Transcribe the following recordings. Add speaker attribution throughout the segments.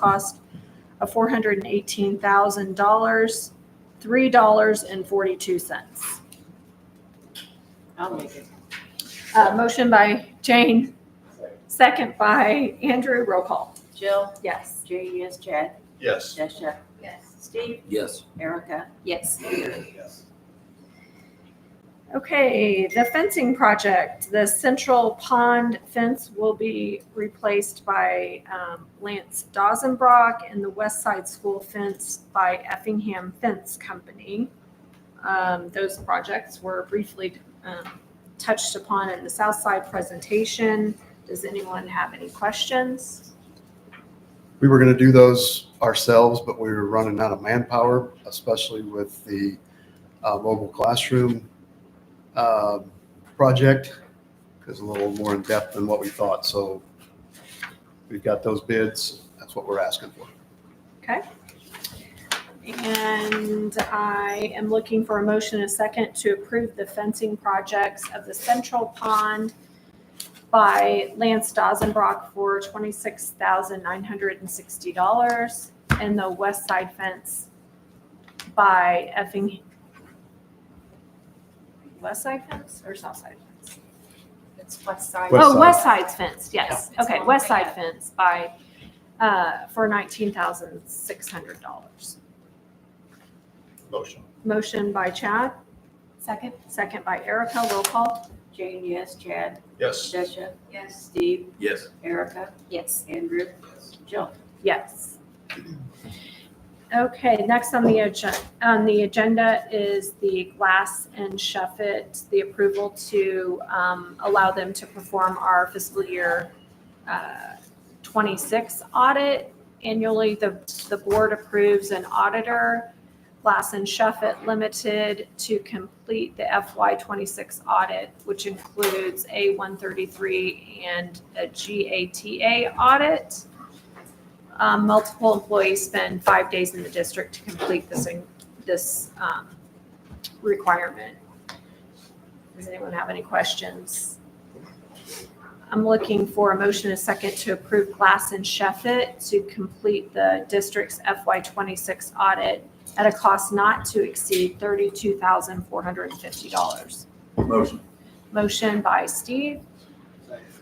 Speaker 1: cost of four hundred and eighteen thousand dollars, three dollars and forty-two cents.
Speaker 2: I'll make it.
Speaker 1: Uh, motion by Jane, second by Andrew, roll call.
Speaker 2: Jill,
Speaker 1: Yes.
Speaker 2: J, yes, Chad,
Speaker 3: Yes.
Speaker 2: Jessica,
Speaker 4: Yes.
Speaker 2: Steve,
Speaker 5: Yes.
Speaker 2: Erica,
Speaker 4: Yes.
Speaker 3: Yes.
Speaker 1: Okay, the fencing project, the central pond fence will be replaced by um, Lance Dozenbrock and the west side school fence by Effingham Fence Company. Um, Those projects were briefly um, touched upon in the south side presentation. Does anyone have any questions?
Speaker 6: We were going to do those ourselves, but we were running out of manpower, especially with the uh, mobile classroom um, project. It's a little more in depth than what we thought, so we've got those bids. That's what we're asking for.
Speaker 1: And I am looking for a motion and a second to approve the fencing projects of the central pond by Lance Dozenbrock for twenty-six thousand nine hundred and sixty dollars and the west side fence by effing west side fence or south side fence?
Speaker 4: It's west side.
Speaker 6: West
Speaker 1: Oh,
Speaker 6: side.
Speaker 1: west side's fence, yes.
Speaker 4: Yeah.
Speaker 1: Okay, west side fence by, uh, for nineteen thousand six hundred dollars.
Speaker 3: Motion.
Speaker 1: Motion by Chad?
Speaker 4: Second?
Speaker 1: Second by Erica, roll call.
Speaker 2: Jane, yes, E Chad,
Speaker 3: Yes.
Speaker 2: Jessica,
Speaker 4: Yes.
Speaker 2: Steve,
Speaker 5: Yes.
Speaker 2: Erica,
Speaker 4: Yes.
Speaker 2: Andrew, Jill.
Speaker 1: Yes. Okay, next on the agenda, on the agenda is the Glass and Shuffit, the approval to um, allow them to perform our fiscal year uh, 26 audit. Annually, the, the board approves an auditor, Glass and Shuffit Limited, to complete the FY 26 audit, which includes a 133 and a GATA audit. Um, multiple employees spend five days in the district to complete this, this, um, requirement. Does anyone have any questions? I'm looking for a motion and a second to approve Glass and Sheffit to complete the district's FY twenty-six audit at a cost not to exceed thirty-two thousand four hundred and fifty dollars.
Speaker 5: Motion.
Speaker 1: Motion by Steve,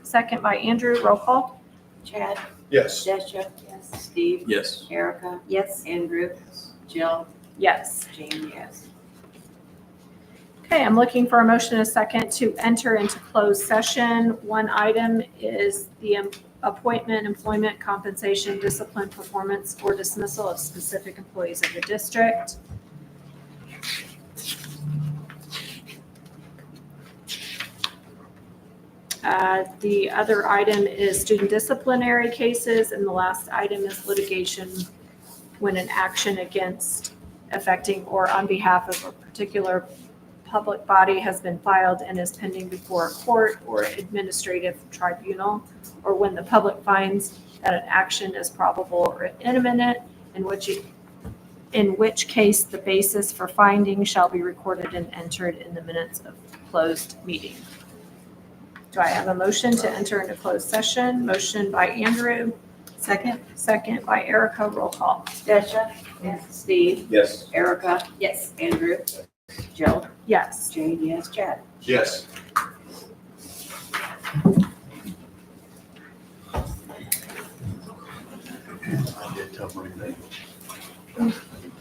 Speaker 1: second by Andrew, roll call.
Speaker 2: Chad,
Speaker 3: Yes.
Speaker 2: Jessica, Steve,
Speaker 5: Yes.
Speaker 2: Erica,
Speaker 4: Yes.
Speaker 2: Andrew, Jill, E
Speaker 1: Yes.
Speaker 2: Jane, yes.
Speaker 1: Okay, I'm looking for a motion and a second to enter into closed session. One item is the em- appointment, employment, compensation, discipline, performance, or dismissal of specific employees of the district. Uh, The other item is student disciplinary cases, and the last item is litigation when an action against affecting or on behalf of a particular public body has been filed and is pending before a court or administrative tribunal, or when the public finds that an action is probable or imminent, in which, it- in which case the basis for finding shall be recorded and entered in the minutes of closed meeting. Do I have a motion to enter into closed session? Motion by Andrew,
Speaker 2: Second.
Speaker 1: second by Erica, roll call.
Speaker 2: Jessica, Steve,
Speaker 5: Yes.
Speaker 2: Erica,
Speaker 4: Yes.
Speaker 2: Andrew, Jill,
Speaker 1: Yes.
Speaker 2: Jane, yes, Chad.
Speaker 3: Yes.
Speaker 6: I did tell Marie that. I did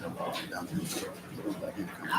Speaker 6: tell Marie down there.